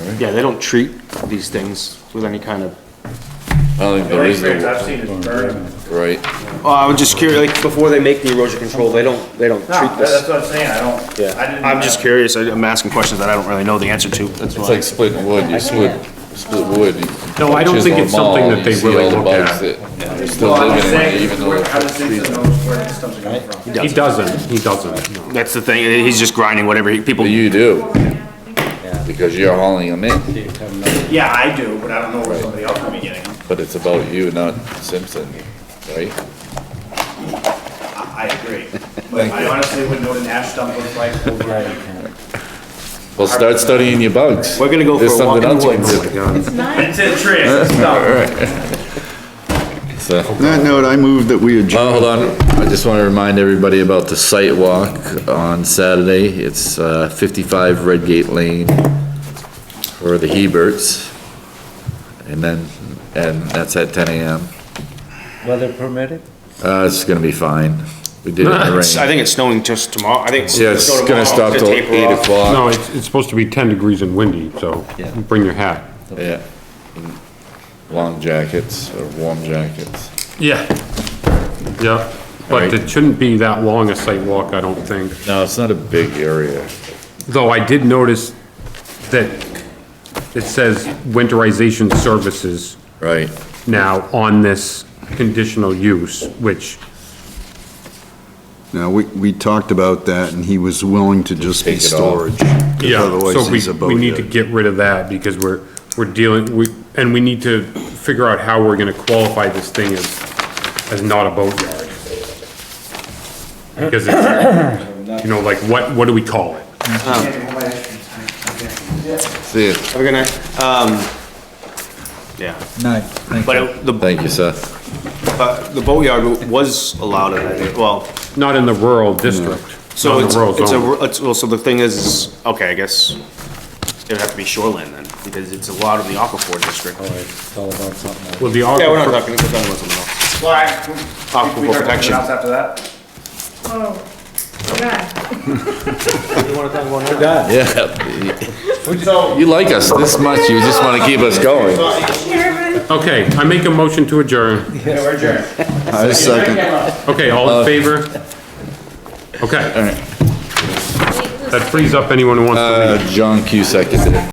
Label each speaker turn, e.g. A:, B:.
A: right?
B: Yeah, they don't treat these things with any kind of,
C: I don't think
D: The
C: there
D: only
C: is,
D: experience
C: a-
D: I've seen is burning.
C: right,
B: oh, I was just curious, like, before they make the erosion control, they don't, they don't
D: No,
B: treat
D: that's
B: this.
D: what I'm saying, I don't.
B: Yeah,
D: I didn't-
B: I'm just curious, I- I'm asking questions that I don't really know the answer to, that's
C: it's
B: why.
C: like splitting wood, you split, split wood. you
E: No, I don't
C: chisel
E: think it's
C: them all, and
E: something that
C: you
E: they
C: see
E: really
C: all the
E: look at.
C: bugs that- They're still
D: Well, I'm just
C: living in it,
D: saying,
C: even though.
D: where- how does things know where this stuff's coming from?
E: He doesn't, he doesn't, no.
B: That's the thing, he's just grinding whatever he, people,
C: But you do, because you're hauling them in,
D: Yeah, I do, but I don't know where somebody else would be getting them.
C: but it's about you, not Simpson, right?
D: I I agree. But I honestly wouldn't know what an ash dump looks like.
C: Well, start studying your bugs.
B: We're gonna go for
C: There's
B: a walk
C: something
B: in the
C: else you can
B: woods.
C: do.
E: My God.
D: It's a trick, it's dumb.
C: So,
A: On that note, I move that we adjourn.
C: oh, hold on, I just wanna remind everybody about the site walk on Saturday, it's, uh, fifty-five Redgate Lane for the Heberts. And then, and that's at ten AM.
F: Weather permitted?
C: Uh, it's gonna be fine. We did it in the
B: It's- I
C: rain.
B: think it's snowing just tomorrow, I think. it's
C: Yeah, it's
B: snow
C: gonna
B: tomorrow,
C: stop till
B: taper
C: eight
B: off.
C: o'clock.
E: No, it's, it's supposed to be ten degrees and windy, so
C: Yeah.
E: bring your hat.
C: Yeah. Long jackets or warm jackets.
E: Yeah. Yeah, but
C: Alright.
E: it shouldn't be that long a site walk, I don't think.
C: No, it's not a big area.
E: Though I did notice that it says winterization services
C: Right.
E: now on this conditional use, which,
C: Uh,
A: Now, we, we talked about that and he was willing to just be
C: Take it off.
A: storage. 'cause
E: yeah,
A: Otherwise, he's
E: so
A: a
E: we, we need to
A: boathead.
E: get rid of that because we're, we're dealing, we, and we need to figure out how we're gonna qualify this thing as, as not a boatyard. Because it's, you know, like, what, what do we call it?
C: See it.
B: Have a good night. Um, yeah,
F: No, thank
B: but it- the,
C: Thank you, Seth.
B: but the boatyard was allowed, in, I think, well,
E: Not in the rural district.
B: so
E: not in
B: it's,
E: the rural
B: it's
E: zone.
B: a, it's, well, so the thing is, okay, I guess it'd have to be shoreline then, because it's allowed in the aquifer district.
F: It's all about something else.
E: Well, the
B: Yeah, we're not
E: aquifer-
B: talking, we're talking about something else.
D: Well, I- think we
B: Aquifer
D: heard something
B: protection.
D: else After that?
G: Oh, God.
C: Yeah.
D: So,
C: You like us this much, you just wanna keep us going.
G: Chairman,
E: Okay, I make a motion to adjourn.
D: yeah, we're adjourned.
A: I second.
E: Okay,
B: Uh,
E: all in favor? Okay. That frees up anyone who wants to leave.
C: Uh, John Q seconded it.